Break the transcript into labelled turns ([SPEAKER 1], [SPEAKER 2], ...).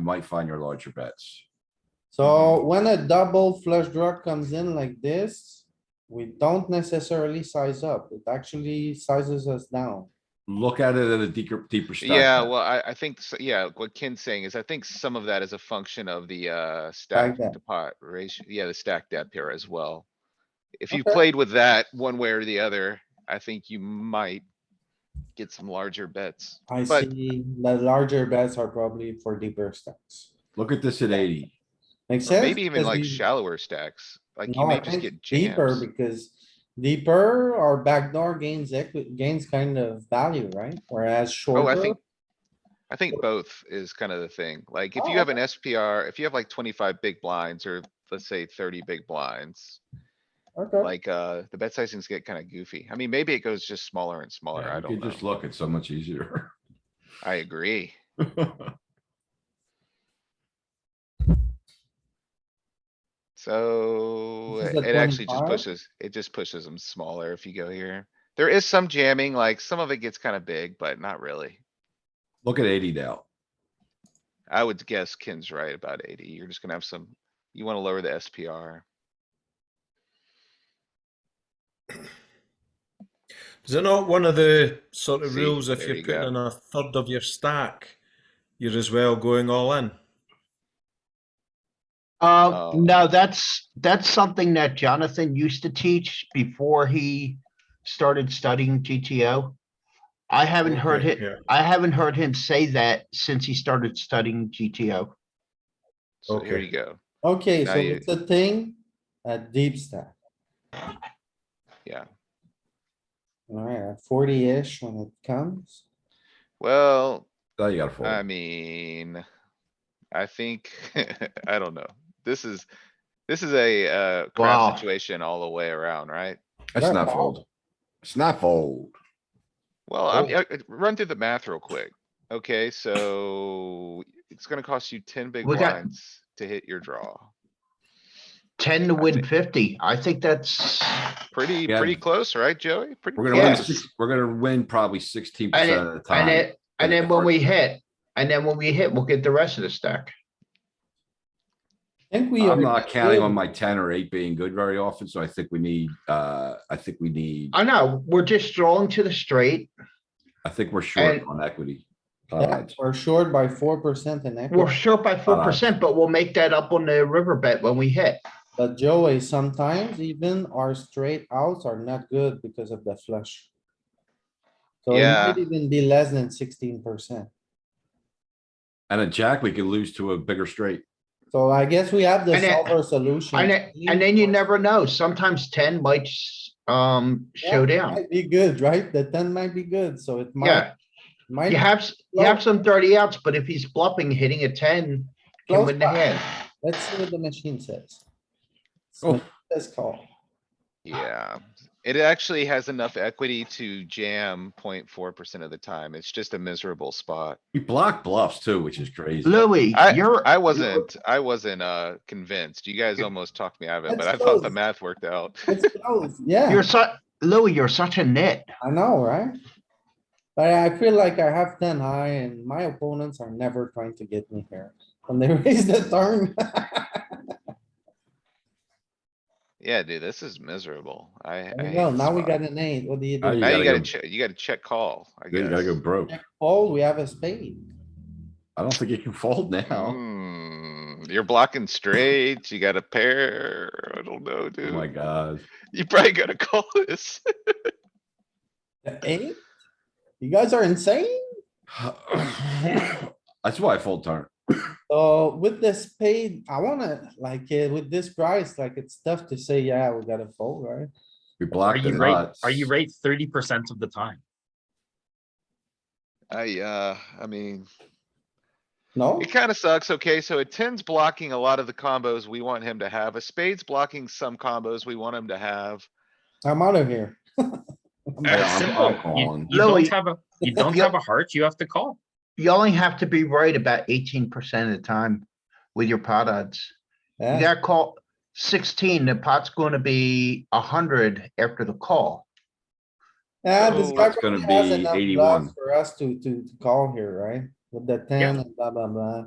[SPEAKER 1] might find your larger bets.
[SPEAKER 2] Mm-hmm.
[SPEAKER 3] So when a double flush draw comes in like this, we don't necessarily size up. It actually sizes us down.
[SPEAKER 1] Look at it at a deeper, deeper stack.
[SPEAKER 2] Yeah, well, I, I think, s- yeah, what Ken's saying is I think some of that is a function of the, uh, stack
[SPEAKER 3] depth.
[SPEAKER 2] to pot ratio, yeah, the stack depth here as well. If you
[SPEAKER 3] Okay.
[SPEAKER 2] played with that one way or the other, I think you might get some larger bets.
[SPEAKER 3] I
[SPEAKER 2] But-
[SPEAKER 3] see the larger bets are probably for deeper stacks.
[SPEAKER 1] Look at this at eighty.
[SPEAKER 3] Makes
[SPEAKER 2] Or
[SPEAKER 3] sense?
[SPEAKER 2] maybe even
[SPEAKER 3] Because
[SPEAKER 2] like
[SPEAKER 3] we-
[SPEAKER 2] shallower stacks, like you
[SPEAKER 3] No,
[SPEAKER 2] may
[SPEAKER 3] I
[SPEAKER 2] just
[SPEAKER 3] think
[SPEAKER 2] get
[SPEAKER 3] deeper
[SPEAKER 2] jams.
[SPEAKER 3] because deeper or backdoor gains equi- gains kind of value, right? Whereas
[SPEAKER 2] Oh,
[SPEAKER 3] shorter.
[SPEAKER 2] I think. I think both is kind of the thing. Like if
[SPEAKER 3] Oh,
[SPEAKER 2] you have an SPR, if you have like twenty-five big blinds or let's say thirty big blinds.
[SPEAKER 3] okay.
[SPEAKER 2] Like, uh, the bet sizings get kinda goofy. I mean, maybe it goes just smaller and smaller.
[SPEAKER 1] Yeah,
[SPEAKER 2] I
[SPEAKER 1] You
[SPEAKER 2] don't
[SPEAKER 1] could
[SPEAKER 2] know.
[SPEAKER 1] just look, it's so much easier.
[SPEAKER 2] I agree. So
[SPEAKER 3] This is
[SPEAKER 2] it
[SPEAKER 3] a
[SPEAKER 2] it actually just
[SPEAKER 3] 25?
[SPEAKER 2] pushes, it just pushes them smaller if you go here. There is some jamming, like some of it gets kinda big, but not really.
[SPEAKER 1] Look at eighty now.
[SPEAKER 2] I would guess Ken's right about eighty. You're just gonna have some, you wanna lower the SPR.
[SPEAKER 4] Is it not one of the sort of
[SPEAKER 2] See,
[SPEAKER 4] rules if
[SPEAKER 2] there
[SPEAKER 4] you're
[SPEAKER 2] you
[SPEAKER 4] putting
[SPEAKER 2] go.
[SPEAKER 4] in a third of your stack, you're as well going all in?
[SPEAKER 2] Oh.
[SPEAKER 4] Oh.
[SPEAKER 5] Uh, no, that's, that's something that Jonathan used to teach before he started studying GTO. I haven't heard
[SPEAKER 4] Okay,
[SPEAKER 5] him,
[SPEAKER 4] yeah.
[SPEAKER 5] I haven't heard him say that since he started studying GTO.
[SPEAKER 2] So here
[SPEAKER 4] Okay.
[SPEAKER 2] you go.
[SPEAKER 3] Okay,
[SPEAKER 2] Now
[SPEAKER 3] so
[SPEAKER 2] you-
[SPEAKER 3] it's a thing, a deep stack.
[SPEAKER 2] Yeah.
[SPEAKER 3] Alright, forty-ish when it comes.
[SPEAKER 2] Well,
[SPEAKER 1] Now you gotta fold.
[SPEAKER 2] I mean, I think, I don't know. This is, this is a, uh,
[SPEAKER 5] Wow.
[SPEAKER 2] crap situation all the way around, right?
[SPEAKER 1] That's
[SPEAKER 3] Yeah,
[SPEAKER 1] not fold. It's not fold.
[SPEAKER 2] Well, I'm, uh, run through the math real quick. Okay, so it's gonna cost you ten big
[SPEAKER 5] We got-
[SPEAKER 2] blinds to hit your draw.
[SPEAKER 5] Ten to
[SPEAKER 2] I
[SPEAKER 5] win
[SPEAKER 2] think-
[SPEAKER 5] fifty. I think that's,
[SPEAKER 2] Pretty,
[SPEAKER 1] Yeah.
[SPEAKER 2] pretty close, right, Joey? Pretty
[SPEAKER 1] We're gonna win,
[SPEAKER 2] close.
[SPEAKER 1] six- we're gonna win probably sixteen percent
[SPEAKER 5] and
[SPEAKER 1] of the
[SPEAKER 5] it, and
[SPEAKER 1] time.
[SPEAKER 5] it, and then when we hit, and then when we hit, we'll get the rest of the stack.
[SPEAKER 3] I Think we.
[SPEAKER 1] I'm
[SPEAKER 3] are
[SPEAKER 1] not counting on
[SPEAKER 3] good.
[SPEAKER 1] my ten or eight being good very often, so I think we need, uh, I think we need,
[SPEAKER 5] I know, we're just drawing to the straight.
[SPEAKER 1] I think we're short
[SPEAKER 5] and-
[SPEAKER 1] on equity.
[SPEAKER 3] Yeah,
[SPEAKER 1] Uh,
[SPEAKER 3] we're short by four percent in
[SPEAKER 5] We're
[SPEAKER 3] equity,
[SPEAKER 5] short by
[SPEAKER 4] Uh-huh.
[SPEAKER 5] four percent, but we'll make that up on the river bet when we hit.
[SPEAKER 3] but Joey, sometimes even our straight outs are not good because of the flush. So it
[SPEAKER 2] Yeah.
[SPEAKER 3] might even be less than sixteen percent.
[SPEAKER 1] And a jack, we could lose to a bigger straight.
[SPEAKER 3] So I guess we have the
[SPEAKER 5] And then-
[SPEAKER 3] solver solution.
[SPEAKER 5] And then, and then you never know, sometimes ten might, s- um, show down.
[SPEAKER 3] Might Be good, right? The ten might be good, so it might,
[SPEAKER 5] Yeah,
[SPEAKER 3] might.
[SPEAKER 5] you have, s- you have some thirty outs, but if he's bluffing, hitting a ten, can
[SPEAKER 3] Close
[SPEAKER 5] win the
[SPEAKER 3] by.
[SPEAKER 5] hand.
[SPEAKER 3] Let's see what the machine says.
[SPEAKER 1] Oh.
[SPEAKER 3] So let's call.
[SPEAKER 2] Yeah, it actually has enough equity to jam 04 percent of the time. It's just a miserable spot.
[SPEAKER 1] We block bluffs too, which is crazy.
[SPEAKER 5] Louis,
[SPEAKER 2] I,
[SPEAKER 5] you're,
[SPEAKER 2] I wasn't, I wasn't, uh, convinced. You guys almost talked me out of it,
[SPEAKER 3] That's
[SPEAKER 2] but I thought the
[SPEAKER 3] close.
[SPEAKER 2] math worked out.
[SPEAKER 3] It's close, yeah,
[SPEAKER 5] you're su- Louis, you're such a nit.
[SPEAKER 3] I know, right? But I feel like I have ten high and my opponents are never trying to get me here. When they raise the turn,
[SPEAKER 2] Yeah, dude, this is miserable. I. I hate
[SPEAKER 3] well,
[SPEAKER 2] this
[SPEAKER 3] now we
[SPEAKER 2] spot.
[SPEAKER 3] got an eight, what do you
[SPEAKER 1] Now
[SPEAKER 3] do?
[SPEAKER 2] Now
[SPEAKER 1] gotta
[SPEAKER 2] you gotta
[SPEAKER 1] go-
[SPEAKER 2] check, you gotta check call, I
[SPEAKER 1] You gotta go
[SPEAKER 2] guess.
[SPEAKER 1] broke.
[SPEAKER 3] Fold, we have a spade.
[SPEAKER 1] I don't think you can fold
[SPEAKER 6] Mm,
[SPEAKER 1] now.
[SPEAKER 2] Hmm, you're blocking straights, you got a pair, I don't know,
[SPEAKER 1] Oh my
[SPEAKER 2] dude.
[SPEAKER 1] god.
[SPEAKER 2] You probably gotta call this.
[SPEAKER 3] The Eight? You guys are insane?
[SPEAKER 1] That's why I fold turn.
[SPEAKER 3] So with the spade, I wanna, like, uh, with this price, like, it's tough to say, yeah, we gotta fold, right?
[SPEAKER 1] We
[SPEAKER 6] Are
[SPEAKER 1] blocked the
[SPEAKER 6] you right?
[SPEAKER 1] nuts.
[SPEAKER 6] Are you right? Thirty percent of the time.
[SPEAKER 2] I, uh, I mean,
[SPEAKER 3] No?
[SPEAKER 2] it kinda sucks, okay, so it tens blocking a lot of the combos we want him to have, a spade's blocking some combos we want him to have.
[SPEAKER 3] I'm out of here.
[SPEAKER 1] Yeah,
[SPEAKER 6] It's
[SPEAKER 1] I'm-
[SPEAKER 6] simple.
[SPEAKER 1] I'm
[SPEAKER 6] You,
[SPEAKER 1] calling.
[SPEAKER 6] you don't
[SPEAKER 5] Louis.
[SPEAKER 6] have a, you don't
[SPEAKER 5] Yep.
[SPEAKER 6] have a heart, you have to call.
[SPEAKER 5] You only have to be right about eighteen percent of the time with your pot odds. You
[SPEAKER 3] Yeah,
[SPEAKER 5] got call sixteen, the pot's gonna be a hundred after the call.
[SPEAKER 3] yeah, this
[SPEAKER 2] So
[SPEAKER 3] guy
[SPEAKER 2] it's
[SPEAKER 1] gonna
[SPEAKER 3] probably has
[SPEAKER 1] be
[SPEAKER 3] enough
[SPEAKER 1] 81.
[SPEAKER 3] bluffs For us to, to to call here, right? With the ten and blah, blah, blah.